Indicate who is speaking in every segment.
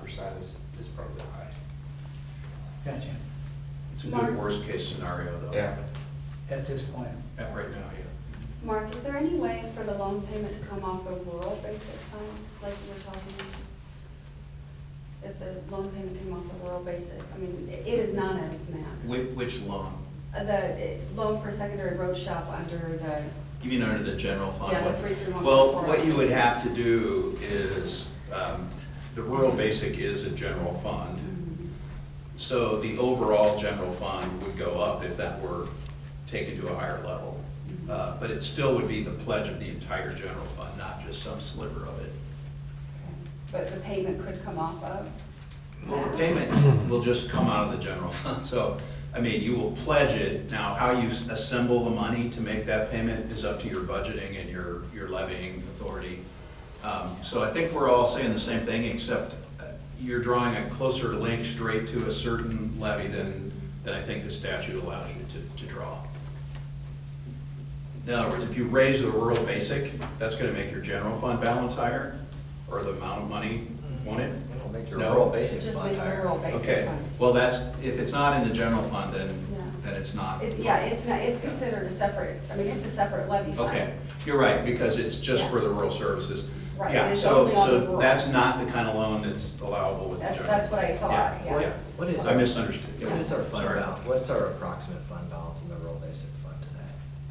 Speaker 1: percent is, is probably high.
Speaker 2: Gotcha,
Speaker 3: It's a
Speaker 4: Mark?
Speaker 3: good worst-case scenario, though.
Speaker 1: Yeah.
Speaker 2: at this point.
Speaker 3: At right now, yeah.
Speaker 4: Mark, is there any way for the loan payment to come off the rural basic fund, like you were talking about? If the loan payment came off the rural basic, I mean, it it is not at its max.
Speaker 3: Which, which loan?
Speaker 4: Uh, The eh, loan for secondary road shop under the,
Speaker 3: You mean under the general fund?
Speaker 4: Yeah, the
Speaker 3: one?
Speaker 4: 331.
Speaker 3: Well, what you would have to do is, um, the rural basic is a general fund. So the overall general fund would go up if that were taken to a higher level. Uh, But it still would be the pledge of the entire general fund, not just some sliver of it.
Speaker 4: but the payment could come off of?
Speaker 3: Well, the
Speaker 4: that?
Speaker 3: payment will just come out of the general fund, so, I mean, you will pledge it. Now, how you assemble the money to make that payment is up to your budgeting and your, your levying authority. Um, So I think we're all saying the same thing, except uh, you're drawing a closer link straight to a certain levy than, than I think the statute allows you to, to draw. In other words, if you raise the rural basic, that's gonna make your general fund balance higher, or the amount of money, won't it?
Speaker 5: It'll make your
Speaker 3: No.
Speaker 5: rural
Speaker 4: It
Speaker 5: basic
Speaker 4: just
Speaker 5: fund
Speaker 4: makes the
Speaker 5: higher.
Speaker 4: rural basic
Speaker 3: Okay,
Speaker 4: fund.
Speaker 3: well, that's, if it's not in the general fund, then,
Speaker 4: Yeah.
Speaker 3: then it's not.
Speaker 4: It's, yeah, it's not, it's considered a separate, I mean, it's a separate levy fund.
Speaker 3: Okay, you're right, because it's just for the rural services.
Speaker 4: Right,
Speaker 3: Yeah,
Speaker 4: and it's
Speaker 3: so,
Speaker 4: only on the
Speaker 3: so
Speaker 4: rural.
Speaker 3: that's not the kind of loan that's allowable with the
Speaker 4: That's-
Speaker 3: general.
Speaker 4: that's what I thought,
Speaker 5: Oh,
Speaker 4: yeah.
Speaker 5: What is
Speaker 3: I
Speaker 5: our-
Speaker 3: misunderstood. Yeah,
Speaker 5: What is our fund
Speaker 3: sorry.
Speaker 5: balance, what's our approximate fund balance in the rural basic fund today?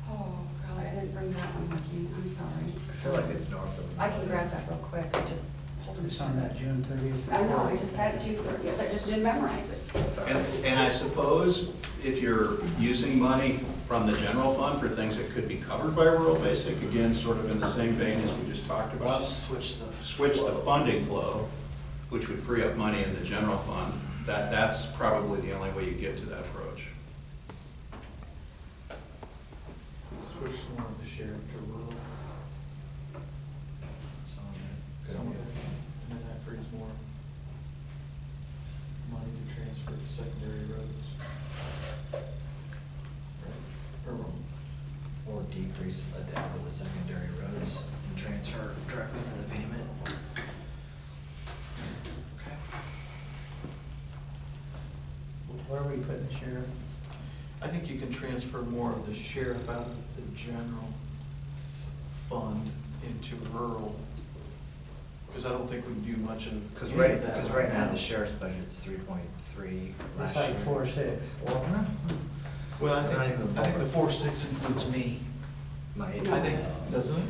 Speaker 4: Oh, God, I didn't bring that one with me, I'm sorry.
Speaker 5: I feel like it's north of.
Speaker 4: I can grab that real quick, I just, hold on.
Speaker 2: It's on that June thirtieth.
Speaker 4: I know, I just had it June thirtieth, I just didn't memorize it.
Speaker 5: Sorry.
Speaker 3: And, and I suppose if you're using money from the general fund for things that could be covered by rural basic, again, sort of in the same vein as we just talked about.
Speaker 6: switch the.
Speaker 3: switch the funding flow, which would free up money in the general fund, that, that's probably the only way you get to that approach.
Speaker 6: Switch some of the share to rural,
Speaker 5: Some of it.
Speaker 6: some of it, and then that frees more money to transfer to secondary roads. Right? Or wrong?
Speaker 5: Or decrease the debt with the secondary roads and transfer directly to the payment.
Speaker 2: Where are we putting the sheriff?
Speaker 6: I think you can transfer more of the sheriff out of the general fund into rural, because I don't think we do much of.
Speaker 5: Because
Speaker 6: any
Speaker 5: right,
Speaker 6: of that
Speaker 5: because right now, the sheriff's budget's three point three last
Speaker 2: It's
Speaker 5: year.
Speaker 2: like four, six.
Speaker 5: Well, no.
Speaker 6: Well, I
Speaker 5: Not
Speaker 6: think,
Speaker 5: even
Speaker 6: I think the
Speaker 5: lower.
Speaker 6: four six includes me.
Speaker 5: My-
Speaker 6: I think, doesn't it?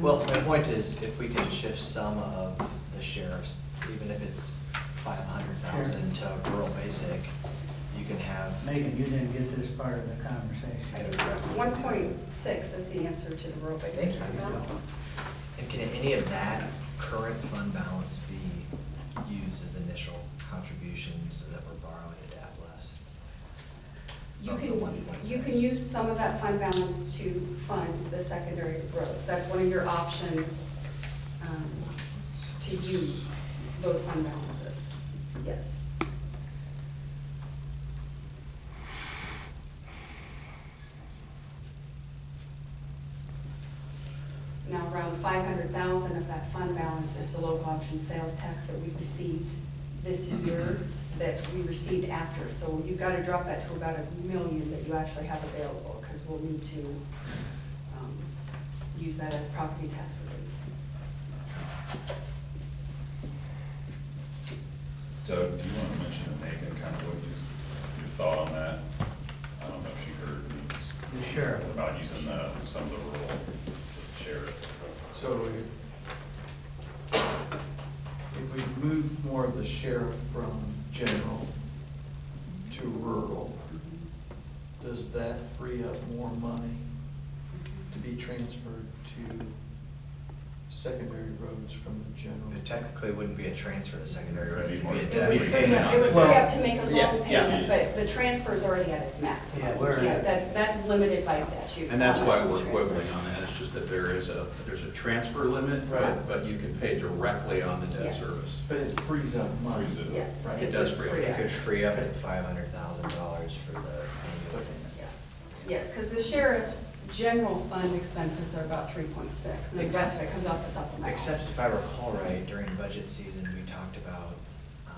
Speaker 5: Well, my point is, if we can shift some of the sheriff's, even if it's five hundred thousand to rural basic, you can have.
Speaker 2: Megan, you didn't get this part of the
Speaker 5: I
Speaker 2: conversation.
Speaker 5: don't know.
Speaker 4: One point six is the answer to the rural basic
Speaker 5: Thank you.
Speaker 4: fund balance.
Speaker 5: And can any of that current fund balance be used as initial contributions so that we're borrowing to debt less?
Speaker 4: You
Speaker 5: Of the
Speaker 4: can,
Speaker 5: 1.6.
Speaker 4: you can use some of that fund balance to fund the secondary roads. That's one of your options, um, to use those fund balances. Yes. Now, around five hundred thousand of that fund balance is the local option sales tax that we received this year, that we received after. So you've got to drop that to about a million that you actually have available, because we'll need to, um, use that as property tax relief.
Speaker 7: Doug, do you want to mention to Megan kind of what you, your thought on that? I don't know if she heard me.
Speaker 2: The sheriff.
Speaker 7: About using the, some of the rural sheriff.
Speaker 6: So if, if we move more of the sheriff from general to rural, does that free up more money to be transferred to secondary roads from the general?
Speaker 5: It technically wouldn't be a transfer to secondary roads,
Speaker 7: It'd
Speaker 5: it'd
Speaker 7: be
Speaker 5: be a
Speaker 7: more-
Speaker 5: debt.
Speaker 7: it'd be
Speaker 4: It
Speaker 7: payment
Speaker 4: would free up to make a loan
Speaker 3: Yeah, yeah.
Speaker 4: payment, but the transfer's already at its maximum.
Speaker 2: Yeah, we're-
Speaker 4: That's, that's limited by statute.
Speaker 3: And that's
Speaker 4: how
Speaker 3: why
Speaker 4: much
Speaker 3: we're
Speaker 4: you transfer.
Speaker 3: quibbling on that, it's just that there is a, there's a transfer limit, but,
Speaker 6: Right.
Speaker 3: but you can pay directly on the debt
Speaker 4: Yes.
Speaker 3: service.
Speaker 6: But it frees up money.
Speaker 7: Frees it up.
Speaker 4: Yes.
Speaker 6: Right,
Speaker 3: it does
Speaker 4: would
Speaker 3: free up.
Speaker 5: It
Speaker 4: up.
Speaker 5: could free up five hundred thousand dollars for the annual payment.
Speaker 4: Yeah. Yes, because the sheriff's general fund expenses are about three point six, and the rest of it comes off the supplemental.
Speaker 5: Except if I recall right, during budget season, we talked about